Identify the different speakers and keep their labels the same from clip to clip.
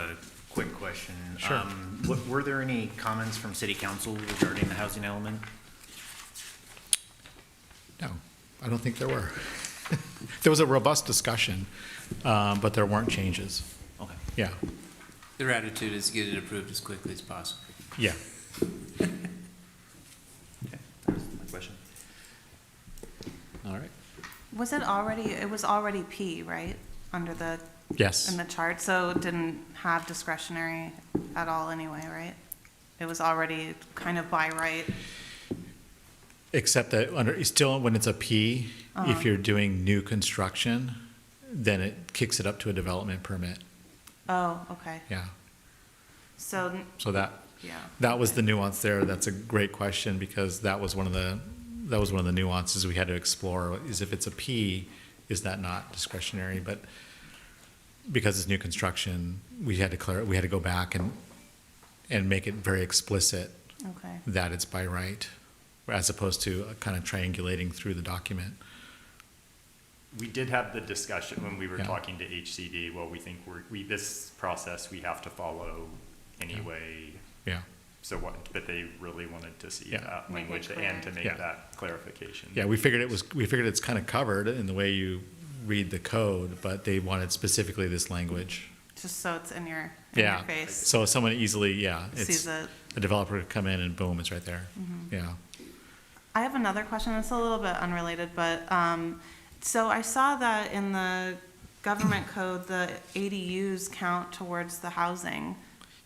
Speaker 1: A quick question.
Speaker 2: Sure.
Speaker 1: Um, what- Were there any comments from city council regarding the housing element?
Speaker 2: No, I don't think there were. There was a robust discussion, um, but there weren't changes.
Speaker 1: Okay.
Speaker 2: Yeah,
Speaker 3: Their attitude is get it approved as quickly as possible.
Speaker 2: yeah.
Speaker 1: Okay. That was my question.
Speaker 3: All right.
Speaker 4: Was it already, it was already P, right, under the,
Speaker 2: Yes,
Speaker 4: in the chart, so it didn't have discretionary at all anyway, right? It was already kind of by right,
Speaker 2: except that under, still, when it's a P, if you're doing new construction, then it kicks it up to a development permit,
Speaker 4: oh, okay,
Speaker 2: yeah.
Speaker 4: so, n-
Speaker 2: So that,
Speaker 4: yeah.
Speaker 2: that was the nuance there. That's a great question because that was one of the, that was one of the nuances we had to explore is if it's a P, is that not discretionary? But because it's new construction, we had to clear, we had to go back and, and make it very explicit
Speaker 4: Okay,
Speaker 2: that it's by right as opposed to kind of triangulating through the document.
Speaker 5: We did have the discussion when we were
Speaker 2: Yeah.
Speaker 5: talking to HCD, well, we think we're, we, this process we have to follow anyway.
Speaker 2: Yeah.
Speaker 5: So what, but they really wanted to see
Speaker 2: Yeah.
Speaker 5: that
Speaker 4: Make it
Speaker 5: language and to
Speaker 4: clear.
Speaker 2: Yeah.
Speaker 5: make that clarification.
Speaker 2: Yeah, we figured it was, we figured it's kind of covered in the way you read the code, but they wanted specifically this language.
Speaker 4: just so it's in your, in your
Speaker 2: Yeah.
Speaker 4: face,
Speaker 2: So someone easily, yeah. it's-
Speaker 4: sees it. Mm-hmm.
Speaker 2: a developer could come in and boom, it's right there. Yeah.
Speaker 4: I have another question. It's a little bit unrelated, but, um, so I saw that in the government code, the ADUs count towards the housing.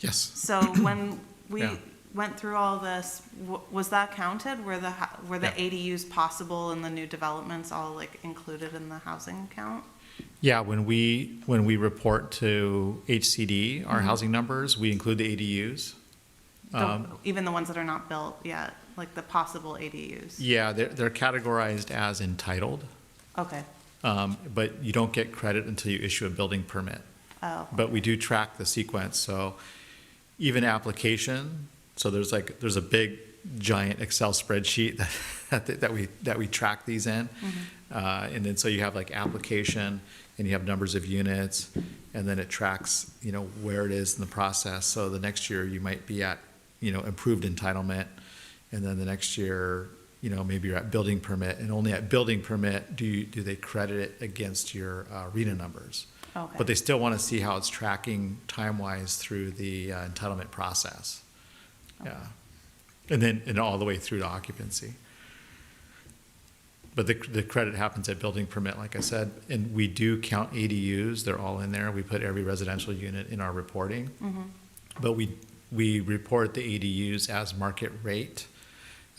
Speaker 2: Yes.
Speaker 4: So when we
Speaker 2: Yeah.
Speaker 4: went through all this, w- was that counted? Were the, ho- were the
Speaker 2: Yeah.
Speaker 4: ADUs possible and the new developments all like included in the housing count?
Speaker 2: Yeah. When we when we report to HCD
Speaker 4: Mm-hmm.
Speaker 2: our housing numbers, we include the ADUs.
Speaker 4: The-
Speaker 2: Um,
Speaker 4: Even the ones that are not built yet, like the possible ADUs?
Speaker 2: Yeah, they're they're categorized as entitled,
Speaker 4: Okay,
Speaker 2: um, but you don't get credit until you issue a building permit.
Speaker 4: oh,
Speaker 2: But we do track the sequence. So even application, so there's like there's a big giant Excel spreadsheet that that, we that we track these in, uh, and then so you have like application and you have numbers of units, and then it tracks you know where it is in the process. So the next year you might be at you know improved entitlement, and then the next year you know maybe you're at building permit, and only at building permit do you, do they credit it against your uh, RENA numbers.
Speaker 4: okay.
Speaker 2: But they still want to see how it's tracking time-wise through the uh, entitlement process. Yeah. And then, and all the way through to occupancy. But the, the credit happens at building permit, like I said, and we do count ADUs, they're all in there. We put every residential unit in our reporting. But we, we report the ADUs as market rate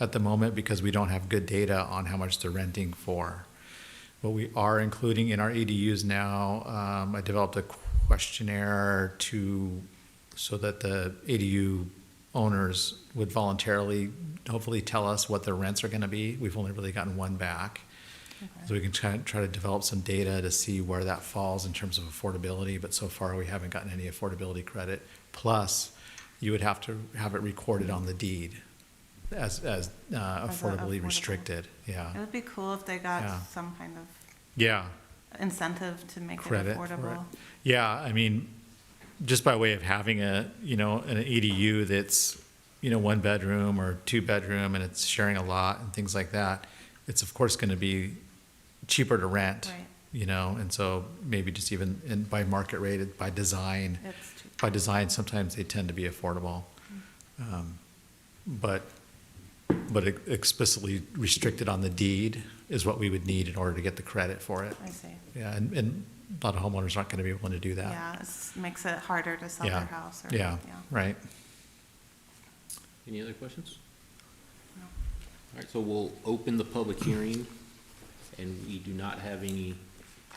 Speaker 2: at the moment because we don't have good data on how much they're renting for. What we are including in our ADUs now, um, I developed a questionnaire to, so that the ADU owners would voluntarily, hopefully tell us what their rents are gonna be. We've only really gotten one back. So we can try, try to develop some data to see where that falls in terms of affordability, but so far we haven't gotten any affordability credit. Plus, you would have to have it recorded on the deed as, as uh,
Speaker 4: As a
Speaker 2: affordably
Speaker 4: affordable.
Speaker 2: restricted,
Speaker 4: It
Speaker 2: yeah.
Speaker 4: would be cool if they
Speaker 2: Yeah.
Speaker 4: got some kind of
Speaker 2: Yeah,
Speaker 4: incentive to make it
Speaker 2: credit for it.
Speaker 4: affordable.
Speaker 2: Yeah, I mean, just by way of having a, you know, an ADU that's, you know, one bedroom or two bedroom and it's sharing a lot and things like that, it's of course gonna be cheaper to rent.
Speaker 4: Right.
Speaker 2: You know, and so maybe just even, and by market rate, by design,
Speaker 4: It's cheap.
Speaker 2: by design, sometimes they tend to be affordable.
Speaker 4: Mm-hmm.
Speaker 2: Um, But, but e-, explicitly restricted on the deed is what we would need in order to get the credit for it.
Speaker 4: I see.
Speaker 2: Yeah, and, and a lot of homeowners aren't going to be willing to do that.
Speaker 4: Yeah, it makes it harder to sell
Speaker 2: Yeah.
Speaker 4: their house or,
Speaker 2: Yeah,
Speaker 4: yeah.
Speaker 2: right.
Speaker 6: Any other questions?
Speaker 4: No.
Speaker 6: All right, so we'll open the public hearing, and we do not have any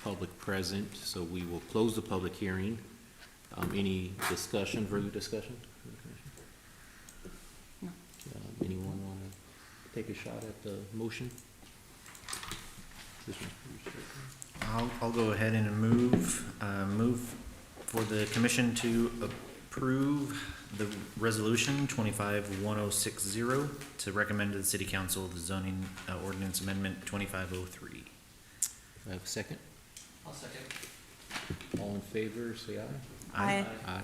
Speaker 6: public present, so we will close the public hearing. Um, any discussion, further discussion?
Speaker 4: No.
Speaker 6: Um, Anyone want to take a shot at the motion? This one's pretty straightforward.
Speaker 1: I'll, I'll go ahead and move, uh, move for the commission to approve the resolution twenty-five one oh six zero to recommend to the city council the zoning uh, ordinance amendment twenty-five oh three.
Speaker 6: Do I have a second? I'll second. All in favor, say aye.
Speaker 4: I,
Speaker 6: Aye.